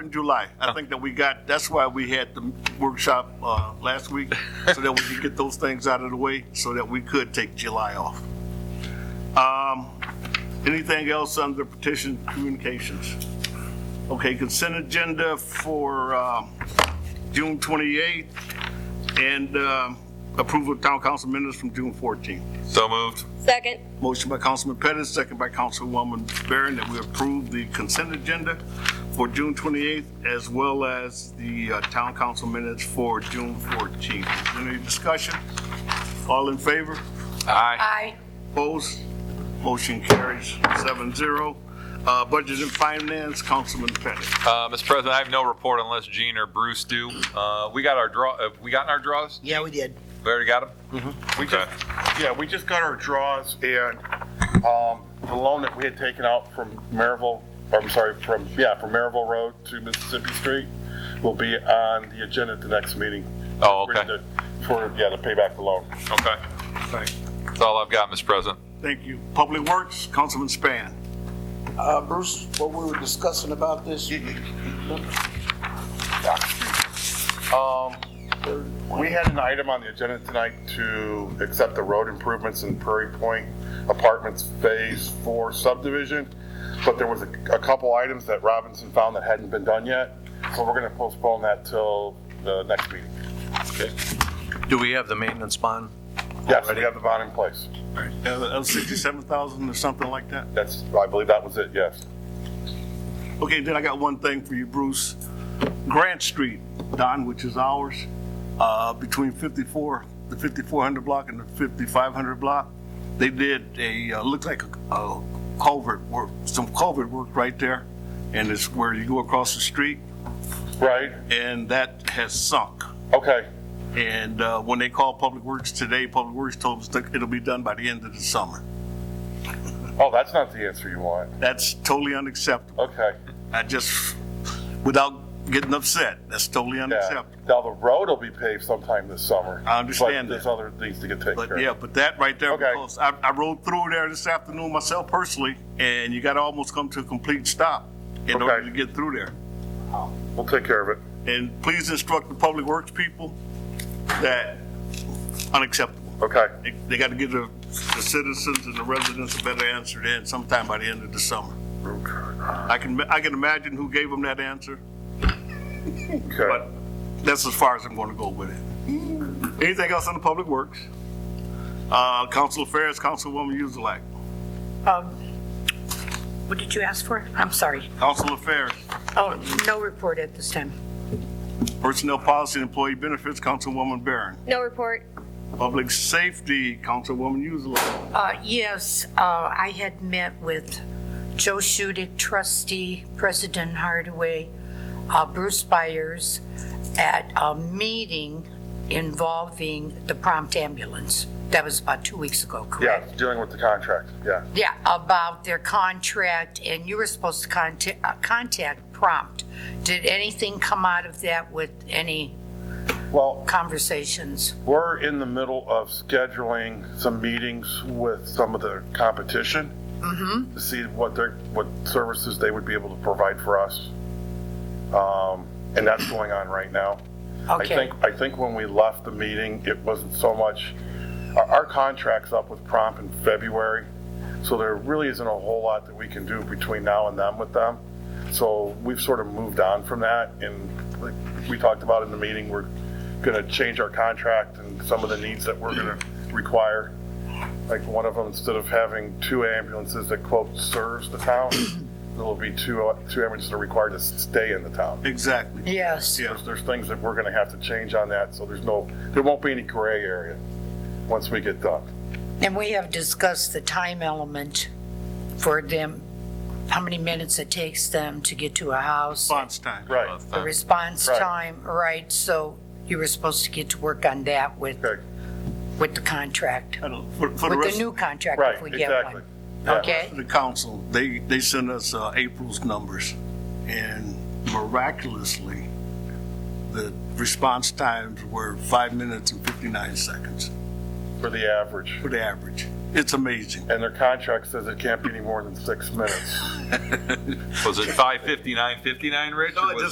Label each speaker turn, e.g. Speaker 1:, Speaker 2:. Speaker 1: in July. I think that we got, that's why we had the workshop uh, last week, so that we could get those things out of the way, so that we could take July off. Um, Anything else under petition communications? Okay, consent agenda for um, June 28th and um, approval of town council minutes from June 14th.
Speaker 2: So moved.
Speaker 3: Second.
Speaker 1: Motion by Councilman Pettis, second by Councilwoman Barron, that we approve the consent agenda for June 28th, as well as the uh, town council minutes for June 14th. Is there Any discussion? All in favor?
Speaker 2: Aye.
Speaker 3: Aye.
Speaker 1: Opposed? Motion carries 7-0. Uh, Budget and Finance, Councilman Pettis.
Speaker 2: Uh, Mr. President, I have no report unless Gene or Bruce do. Uh, we got our draw, have we gotten our draws?
Speaker 4: Yeah, we did.
Speaker 2: We already got them?
Speaker 5: We just, yeah, we just got our draws and, um, the loan that we had taken out from Maryville, or I'm sorry, from, yeah, from Maryville Road to Mississippi Street will be on the agenda at the next meeting.
Speaker 2: Oh, okay.
Speaker 5: For, yeah, to pay back the loan.
Speaker 2: Okay. That's all I've got, Mr. President.
Speaker 1: Thank you. Public Works, Councilman Span.
Speaker 4: Uh, Bruce, what we were discussing about this?
Speaker 5: Um, we had an item on the agenda tonight to accept the road improvements in Prairie Point Apartments Phase Four subdivision, but there was a, a couple items that Robinson found that hadn't been done yet, so we're gonna postpone that till the next meeting.
Speaker 6: Do we have the maintenance bond?
Speaker 5: Yes, we have the bond in place.
Speaker 1: Uh, 67000 or something like that?
Speaker 5: That's, I believe that was it, yes.
Speaker 1: Okay, then I got one thing for you, Bruce. Grant Street, Don, which is ours, uh, between 54, the 5400 block and the 5500 block, they did a, uh, looked like a- a culvert work, some culvert work right there, and it's where you go across the street,
Speaker 5: Right,
Speaker 1: and that has sunk.
Speaker 5: okay,
Speaker 1: And uh, when they called Public Works today, Public Works told us that it'll be done by the end of the summer.
Speaker 5: oh, that's not the answer you want,
Speaker 1: That's totally unacceptable.
Speaker 5: okay,
Speaker 1: I just, without getting upset, that's totally
Speaker 5: yeah.
Speaker 1: unacceptable.
Speaker 5: Now, the road will be paved sometime this summer.
Speaker 1: I understand
Speaker 5: But there's
Speaker 1: that.
Speaker 5: other things to get taken care
Speaker 1: But
Speaker 5: of.
Speaker 1: yeah, but that right there,
Speaker 5: Okay.
Speaker 1: because I, I rode through there this afternoon myself personally, and you gotta almost come to a complete stop in order
Speaker 5: Okay.
Speaker 1: to get through there.
Speaker 5: We'll take care of it.
Speaker 1: And please instruct the public works people that unacceptable.
Speaker 5: Okay.
Speaker 1: They, they gotta give the, the citizens and the residents a better answer than sometime by the end of the summer. I can, I can imagine who gave them that answer,
Speaker 5: Okay.
Speaker 1: but that's as far as I'm gonna go with it.
Speaker 5: Mm.
Speaker 1: Anything else on the public works? Uh, council affairs, Councilwoman Yuzlak,
Speaker 7: Um, What did you ask for? I'm sorry.
Speaker 1: council affairs.
Speaker 7: Oh, no report at this time.
Speaker 1: Personnel Policy and Employee Benefits, Councilwoman Barron.
Speaker 3: No report.
Speaker 1: Public Safety, Councilwoman Yuzlak.
Speaker 7: Uh, Yes, uh, I had met with Joe Shudick, trustee, President Hardaway, uh, Bruce Byers at a meeting involving the prompt ambulance. That was about two weeks ago,
Speaker 5: Yeah,
Speaker 7: correct?
Speaker 5: dealing with the contract, yeah.
Speaker 7: Yeah, about their contract, and you were supposed to contact, uh, contact prompt. Did anything come out of that with any
Speaker 5: Well,
Speaker 7: conversations?
Speaker 5: we're in the middle of scheduling some meetings with some of the competition to see what their, what services they would be able to provide for us. Um, and that's going on right now. I
Speaker 7: Okay.
Speaker 5: think, I think when we left the meeting, it wasn't so much, our, our contract's up with Prompt in February, so there really isn't a whole lot that we can do between now and then with them. So we've sort of moved on from that, and like we talked about in the meeting, we're gonna change our contract and some of the needs that we're gonna require. Like one of them, instead of having two ambulances that quote serves the town, there'll be two, two ambulances that are required to stay in the town.
Speaker 1: Exactly.
Speaker 7: Yes.
Speaker 1: Yeah.
Speaker 5: There's, there's things that we're gonna have to change on that, so there's no, there won't be any gray area once we get done.
Speaker 7: And we have discussed the time element for them, how many minutes it takes them to get to a house,
Speaker 1: Response time.
Speaker 5: Right,
Speaker 7: the response
Speaker 5: Right.
Speaker 7: time, right? So you were supposed to get to work on that with,
Speaker 5: okay,
Speaker 7: with the contract,
Speaker 1: I don't- For, for the
Speaker 7: with
Speaker 1: rest
Speaker 7: the new contract
Speaker 5: right,
Speaker 7: if we get
Speaker 5: exactly.
Speaker 7: one.
Speaker 5: Yeah.
Speaker 7: Okay?
Speaker 1: of the council, they, they sent us uh, April's numbers, and miraculously, the response times were five minutes and 59 seconds
Speaker 5: For the average.
Speaker 1: for the average. It's amazing.
Speaker 5: And their contract says it can't be any more than six minutes.
Speaker 2: Was it 559.59, Rich? or
Speaker 1: No, it
Speaker 2: was